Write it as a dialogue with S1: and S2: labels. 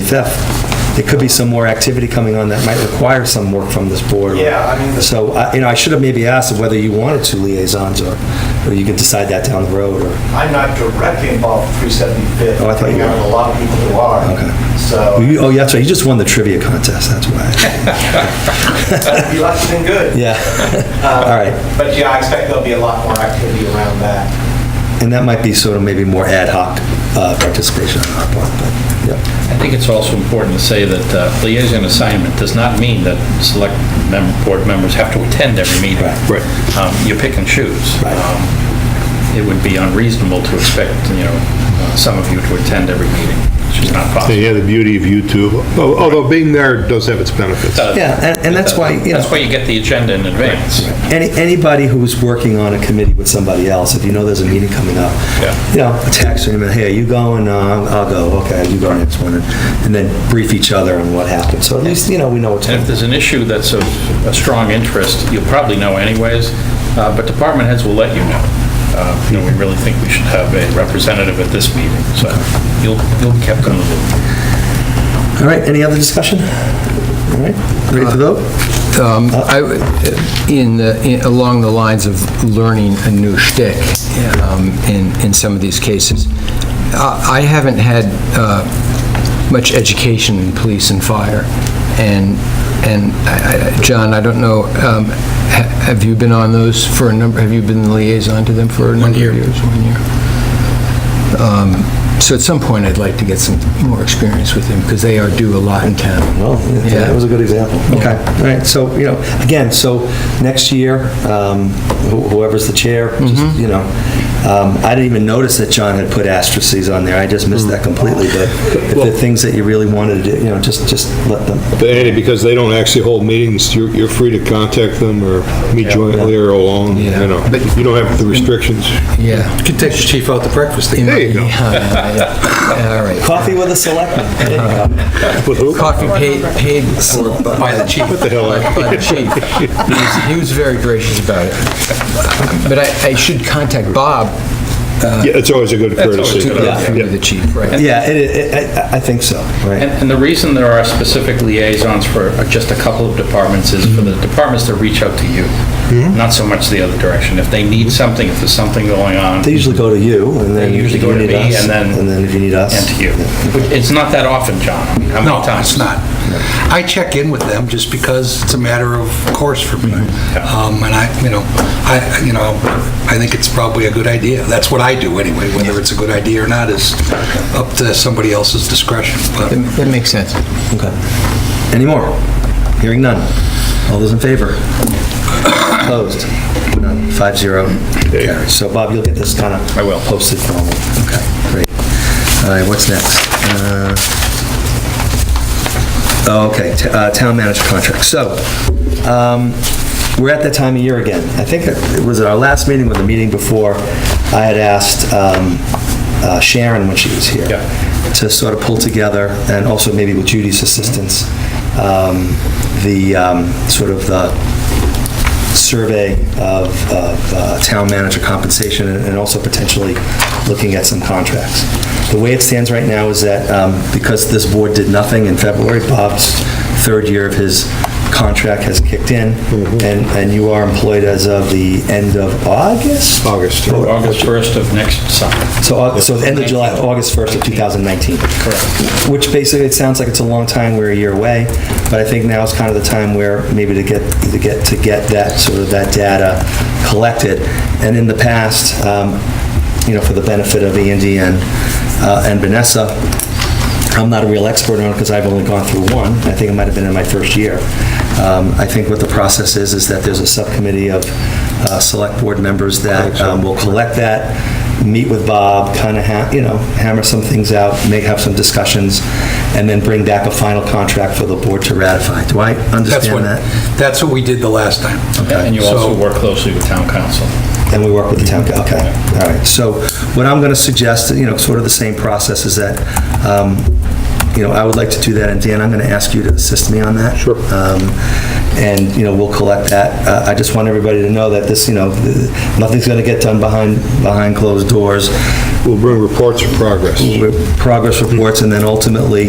S1: 375th. There could be some more activity coming on that might require some work from this board.
S2: Yeah, I mean, the-
S1: So, I- you know, I should have maybe asked whether you wanted two liaisons, or, or you could decide that down the road, or,
S2: I'm not directly involved with 375th.
S1: Oh, I thought you
S2: We have
S1: were.
S2: A lot of people who are.
S1: Okay.
S2: So,
S1: You- oh, yeah, that's right, you just won the trivia contest, that's
S2: Um,
S1: why.
S2: you left it in good. Um,
S1: Yeah, all right.
S2: But yeah, I expect there'll be a lot more activity around that.
S1: And that might be sort of maybe more ad hoc uh, participation on our part, but, yeah.
S3: I think it's also important to say that uh, liaison assignment does not mean that select mem- board members have to attend every meeting.
S1: Right, right.
S3: Um, You pick and choose.
S1: Right.
S3: Um, It would be unreasonable to expect, you know, uh, some of you to attend every meeting, which is not
S4: And
S3: possible.
S4: yeah, the beauty of YouTube, al- although being there does have its benefits.
S3: Uh,
S1: Yeah, and- and that's why, you know-
S3: That's why you get the agenda in advance.
S1: Any, anybody who's working on a committee with somebody else, if you know there's a meeting coming up,
S3: Yeah.
S1: you know, text them, hey, are you going? No, I'll I'll go, okay, you go next one, and and then brief each other on what happened, so at least, you know, we know what's
S3: And if
S1: happening.
S3: there's an issue that's of a strong interest, you'll probably know anyways, uh, but department heads will let you know. Uh, You know, we really think we should have a representative at this meeting, so you'll, you'll be kept in the loop.
S1: All right, any other discussion? All right, ready to vote?
S5: Um, I w- In, the- in- along the lines of learning a new shtick um, in, in some of these cases, I I haven't had uh, much education in police and fire, and, and, I- I- John, I don't know, um, ha- have you been on those for a number, have you been the liaison to them for a number of years? One year. Um, So at some point, I'd like to get some more experience with them, because they are do a lot in town.
S1: Well, Oh, yeah, that was a good example. Okay, all right, so, you know, again, so next year, um, wh- whoever's the chair, just,
S3: Mm-hmm.
S1: you know, um, I didn't even notice that John had put asterisks on there, I just missed that
S3: Mm.
S1: completely, but if there are things that you really wanted to do, you know, just, just let them,
S4: But Andy, because they don't actually hold meetings, you're, you're free to contact them or meet jointly or alone, you
S5: Yeah.
S4: know. You don't have the restrictions.
S5: Yeah.
S6: Could take the chief out to breakfast.
S5: Yeah,
S4: There you go.
S5: yeah, yeah. All right.
S1: Coffee with a selectman. There you go.
S4: With who?
S5: Coffee paid, paid by the chief. What
S4: the hell?
S5: By the chief. He was- He was very gracious about it. But I, I should contact Bob,
S4: Yeah, it's always a good
S3: always
S4: courtesy.
S3: a good idea.
S5: through
S4: Yeah.
S5: the chief, right?
S1: Yeah, it- it- I I- I think so,
S3: And,
S1: right?
S3: and the reason there are specific liaisons for just a couple of departments is for the departments to reach out to you, not so much the other direction. If they need something, if there's something going on,
S1: They
S3: and
S1: usually go to you, and then
S3: They
S1: if
S3: usually
S1: you
S3: go to
S1: need
S3: me,
S1: us,
S3: and then-
S1: and then if you need us.
S3: to you. Which- It's not that often, John. I mean, How many
S6: No,
S3: times?
S6: it's not. I check in with them just because it's a matter of course for me. Um, And I, you know, I, you know, I think it's probably a good idea. That's what I do anyway, whether it's a good idea or not is up to somebody else's discretion. But
S5: That that makes sense.
S1: Okay. Any more? Hearing none. All those in favor? Opposed? None. Five zero. Carries. So Bob, you'll get this kind of.
S3: I will.
S1: Posted formally. Okay, great. All right, what's next? Uh, oh, Okay, t- uh, town manager contract. So um, we're at that time of year again. I think it was at our last meeting or the meeting before, I had asked um, uh, Sharon when she was here
S3: Yeah.
S1: to sort of pull together, and also maybe with Judy's assistance, um, the, um, sort of the survey of of, uh, town manager compensation, and and also potentially looking at some contracts. The way it stands right now is that, um, because this board did nothing in February, Bob's third year of his contract has kicked in, and and you are employed as of the end of August?
S4: August.
S3: August 1st of next summer.
S1: So, Au- so the end of July, August 1st of 2019. Correct. Which basically, it sounds like it's a long time, we're a year away, but I think now is kind of the time where maybe to get, to get, to get that, sort of that data collected. And in the past, um, you know, for the benefit of Andy and, uh, and Vanessa, I'm not a real expert on it because I've only gone through one. I think it might have been in my first year. Um, I think what the process is, is that there's a subcommittee of uh, select board members that um, will collect that, meet with Bob, kind of, you know, hammer some things out, may have some discussions, and then bring back a final contract for the board to ratify. Do I
S6: that's what,
S1: understand that?
S6: that's what we did the last time.
S3: And you also
S6: So-
S3: work closely with town council.
S1: And we work with the town, coun- okay, all right. So what I'm going to suggest, you know, sort of the same process is that, um, you know, I would like to do that, and Dan, I'm going to ask you to assist me on that. Sure. And, you know, we'll collect that. Uh, I just want everybody to know that this, you know, th- nothing's going to get done behind, behind closed doors.
S4: We'll bring reports of progress.
S1: Progress reports, and then ultimately,